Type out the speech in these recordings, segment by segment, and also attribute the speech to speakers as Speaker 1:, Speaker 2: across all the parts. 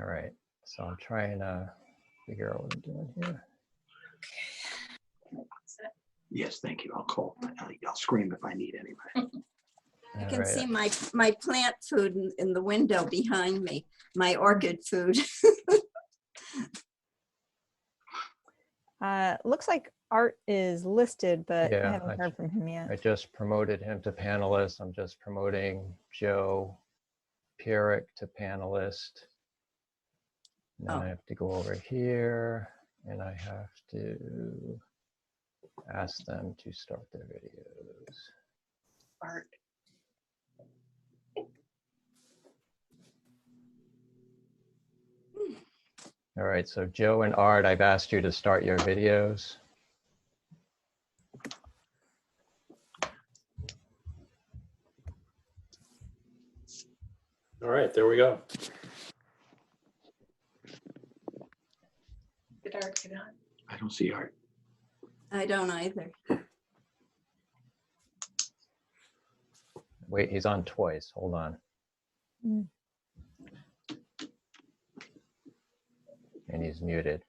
Speaker 1: All right, so I'm trying to figure out what I'm doing here.
Speaker 2: Yes, thank you. I'll call. I'll- I'll scream if I need anybody.
Speaker 3: I
Speaker 1: All
Speaker 3: can
Speaker 1: right,
Speaker 3: see my, my plant food in- in the window behind me, my orchid food.
Speaker 4: Uh, looks like Art is listed, but I
Speaker 1: Yeah, I
Speaker 4: haven't heard from him yet.
Speaker 1: I just promoted him to panelist. I'm just promoting Joe Pyrick to panelist. Now I
Speaker 3: Oh.
Speaker 1: have to go over here and I have to ask them to start their videos.
Speaker 5: Art.
Speaker 1: All right, so Joe and Art, I've asked you to start your videos.
Speaker 6: All right, there we go.
Speaker 5: Did Art get on?
Speaker 2: I don't see Art.
Speaker 3: I don't either.
Speaker 1: Wait, he's on twice. Hold on.
Speaker 4: Mm.
Speaker 1: And he's muted.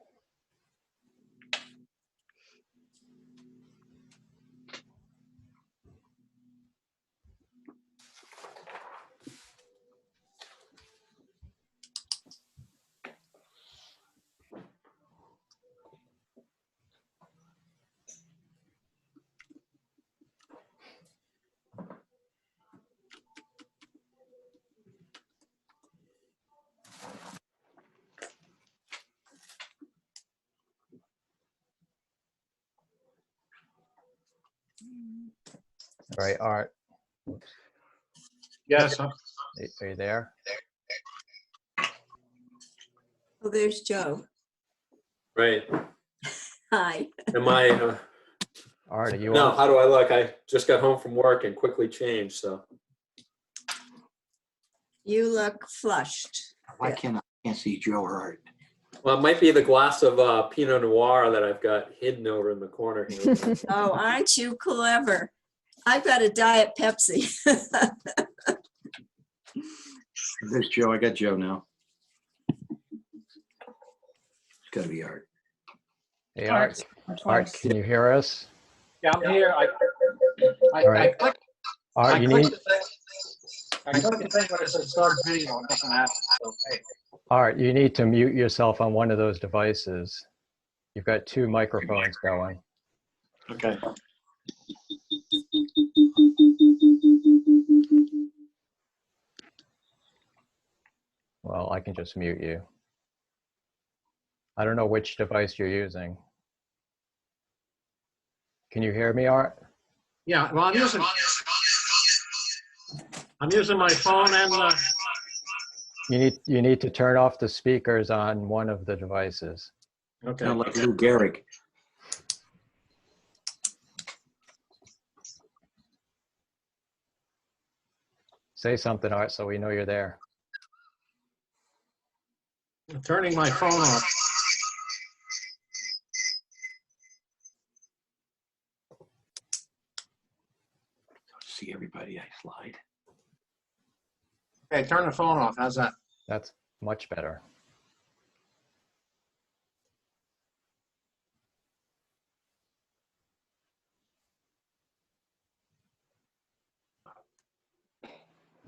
Speaker 1: All right, Art,
Speaker 7: Yes, I'm-
Speaker 1: a- are you there?
Speaker 3: Oh, there's Joe.
Speaker 6: Right.
Speaker 3: Hi.
Speaker 6: Am I, uh,
Speaker 1: Art, are you
Speaker 6: no,
Speaker 1: on?
Speaker 6: how do I look? I just got home from work and quickly changed, so.
Speaker 3: You look flushed.
Speaker 2: Why can't I can't see Joe or Art?
Speaker 6: Well, it might be the glass of uh, Pinot Noir that I've got hidden over in the corner here.
Speaker 3: Oh, aren't you clever? I've got a diet Pepsi.
Speaker 2: There's Joe. I got Joe now. It's gotta be Art.
Speaker 1: Hey, Art, Art, can you hear us?
Speaker 7: yeah, I'm here. I, I,
Speaker 1: All
Speaker 7: I
Speaker 1: right.
Speaker 7: clicked, I
Speaker 1: Art, you
Speaker 7: clicked
Speaker 1: need,
Speaker 7: the thing. I clicked the thing when it said start video, it doesn't happen, so, hey.
Speaker 1: Art, you need to mute yourself on one of those devices. You've got two microphones going.
Speaker 7: Okay.
Speaker 1: Well, I can just mute you. I don't know which device you're using. Can you hear me, Art?
Speaker 7: Yeah, well, I'm using, I'm using my phone and, uh,
Speaker 1: You need, you need to turn off the speakers on one of the devices.
Speaker 7: okay.
Speaker 2: Sound like Lou Gehrig.
Speaker 1: Say something, Art, so we know you're there.
Speaker 7: I'm Turning my phone off.
Speaker 2: See everybody. I slide.
Speaker 7: Okay, turn the phone off. How's that?
Speaker 1: That's much better.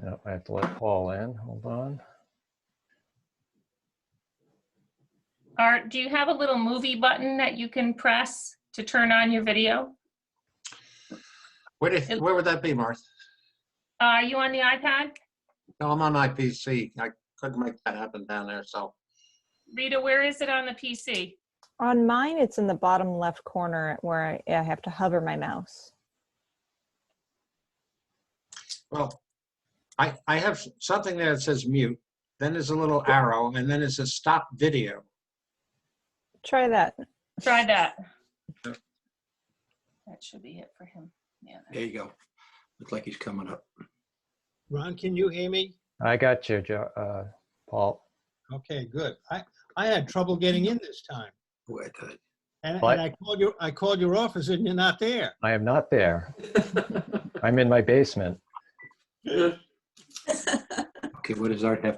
Speaker 1: Yep, I have to let Paul in. Hold on.
Speaker 8: Art, do you have a little movie button that you can press to turn on your video?
Speaker 7: Where did, where would that be, Martha?
Speaker 8: Are Uh, you on the iPad?
Speaker 7: No, I'm on my PC. I couldn't make that happen down there, so.
Speaker 8: Rita, where is it on the PC?
Speaker 4: On mine, it's in the bottom left corner where I, I have to hover my mouse.
Speaker 7: Well, I, I have something there that says mute, then there's a little arrow, and then it says stop video.
Speaker 4: Try that.
Speaker 8: Try that. That should be it for him. Yeah.
Speaker 2: There you go. Looks like he's coming up.
Speaker 9: Ron, can you hear me?
Speaker 1: I got you, Jo- uh, Paul.
Speaker 9: Okay, good. I, I had trouble getting in this time.
Speaker 2: Who I thought-
Speaker 9: And,
Speaker 1: What?
Speaker 9: and I called your, I called your office and you're not there.
Speaker 1: I am not there. I'm in my basement.
Speaker 2: Okay, what does Art have